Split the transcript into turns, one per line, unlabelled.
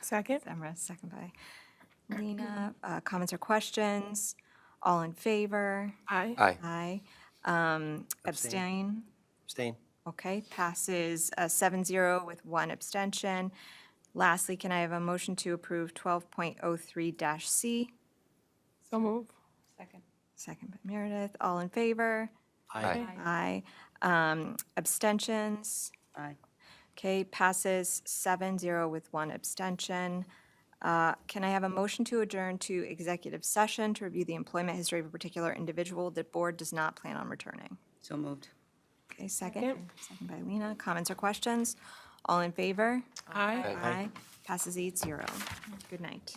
Second?
Semra, second by Lena. Uh, Comments or questions? All in favor?
Aye.
Aye.
Aye. Um, Abstain?
Abstain.
Okay, passes uh, 7-0 with one abstention. Lastly, can I have a motion to approve 12.03-C?
So move.
Second by Meredith. All in favor?
Aye.
Aye. Um, Abstentions?
Aye.
Okay, passes 7-0 with one abstention. Uh, Can I have a motion to adjourn to executive session to review the employment history of a particular individual the board does not plan on returning?
So moved.
Okay, second. Second by Lena. Comments or questions? All in favor?
Aye.
Aye.
Passes eight zero. Good night.